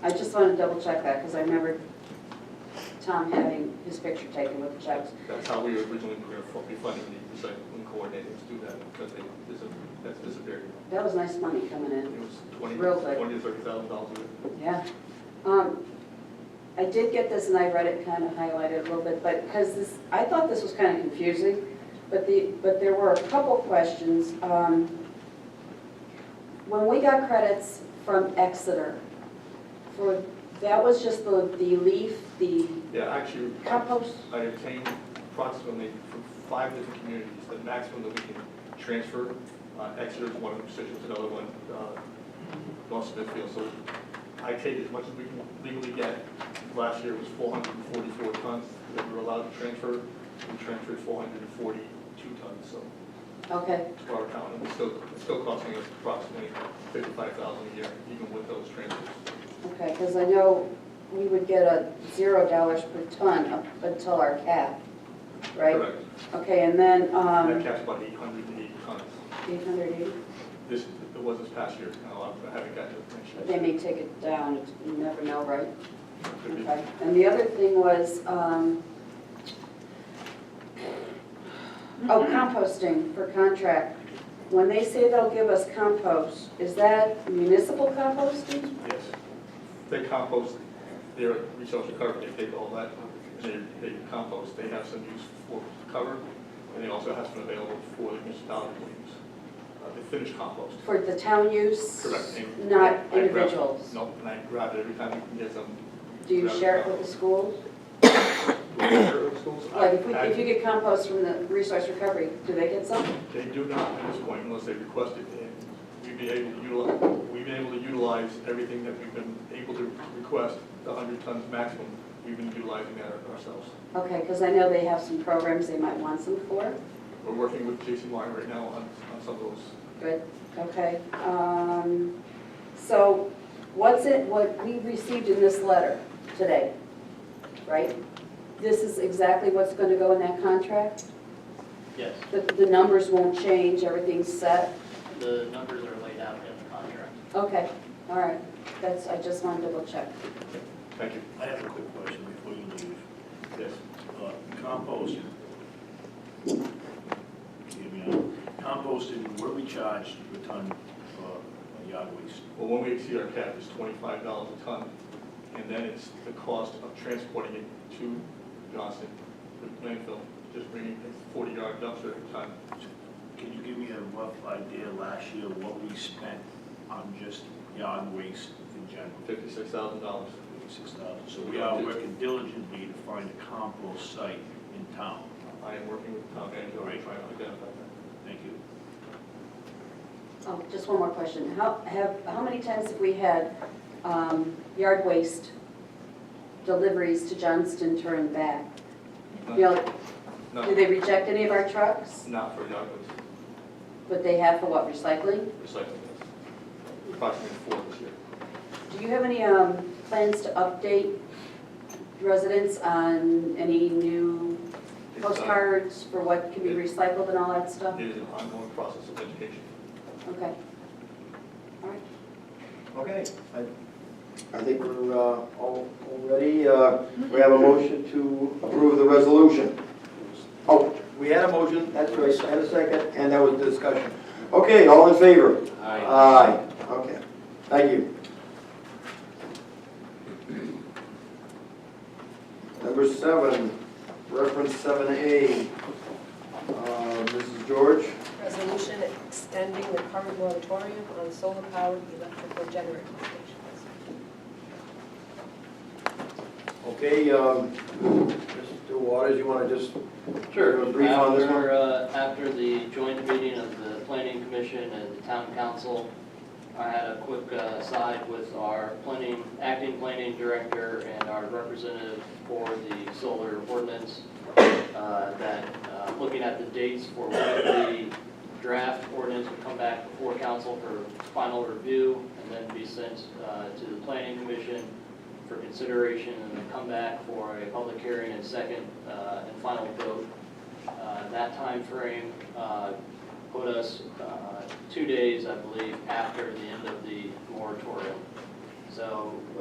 I just want to double check that, because I remember Tom having his picture taken with the checks. That's how we originally were fu- we funded the recycling coordinators to do that, because they, dis- that's disappeared. That was nice money coming It in, was twenty, Real good. twenty to thirty thousand dollars. yeah. Um, I did get this, and I read it kind of highlighted a little bit, but, because this, I thought this was kind of confusing, but the, but there were a couple questions. Um, When we got credits from Exeter, for, that was just the, the leaf, the Yeah, actually, compost, I obtained approximately from five different communities, the maximum that we can transfer. Uh, Exeter is one of them, Citrus is another one, uh, North Smithfield. So I take as much as we can legally get. Last year was four hundred and forty-four tons that we were allowed to transfer. We transferred four hundred and forty-two tons, so okay. to our town. And it's still, it's still costing us approximately fifty-five thousand a year, even with those transfers. Okay, because I know we would get a zero dollars per ton up until our cap, right? Correct. Okay, and then, That um, caps about eight hundred and eighty tons. eight hundred eighty, This, it was this past year, now I haven't got the information. but they may take it down, it's- you never know, right? Could be. Okay, and the other thing was, um, oh, composting for contract. When they say they'll give us compost, is that municipal composting? Yes. They compost, their resource recovery, they take all that, and they, they compost, they have some use for cover, and they also have some available for the municipality to use. Uh, They finish compost. For the town use? Correct. And Not I grab- individuals? Nope, and I grab it every time we can get some. Do you grab share it with the compost. schools? Do I share it with schools? I- Like, if we, I- if you get compost from the resource recovery, do they get some? They do not at this point unless they request it. And We've been able to utilize, we've been able to utilize everything that we've been able to request, the hundred tons maximum. We've been utilizing that ourselves. Okay, because I know they have some programs they might want some for. We're working with J.C. Martin right now on, on some of those. Good, okay. Um, So what's it, what we received in this letter today, right? This is exactly what's going to go in that contract? Yes, The, the numbers won't change, everything's set? the numbers are laid out in the contract. Okay, all right. That's, I just wanted to double check. Thank you. I have a quick question before you leave. Yes. Uh, Compost. Hear me out. Composting, what do we charge per ton for yard waste? Well, when we exceed our cap, it's twenty-five dollars a ton. And then it's the cost of transporting it to Johnson, the landfill, just bringing a forty-yard dumpster at a time. Can you give me a rough idea last year what we spent on just yard waste in general? Fifty-six thousand dollars. Fifty-six thousand. So we are working diligently to find a compost site in town. I am working with Tom Angelo, trying Right. to identify that. Thank you. Oh, just one more question. How, have, how many times have we had um, yard waste deliveries to Johnston turned back? You No, know, do they reject any of our trucks? Not for yard waste, But they have for what, recycling? recycling waste. Approximately four this year. Do you have any um, plans to update residents on any new It's, uh, postcards for what can be recycled and all that stuff? It is an ongoing process of education. Okay. All right. Okay, I, I think we're uh, all, all ready. Uh, We have a motion to approve the resolution. Oh, we had a motion, that's right, and a second, and that was discussion. Okay, all in favor? Aye. Aye, okay, thank you. Number seven, reference seven A. Mrs. George? Resolution extending the current moratorium on solar-powered electrical generating stations. Okay, um, Mr. Waters, you want to just Sure. Brief on this one. After, uh, after the joint meeting of the planning commission and the town council, I had a quick uh, aside with our planning, acting planning director and our representative for the solar ordinance, uh, that, uh, looking at the dates for when the draft ordinance would come back before council for final review and then be sent uh, to the planning commission for consideration and then come back for a public hearing and second uh, and final vote. Uh, That timeframe uh, put us uh, two days, I believe, after the end of the moratorium. So uh,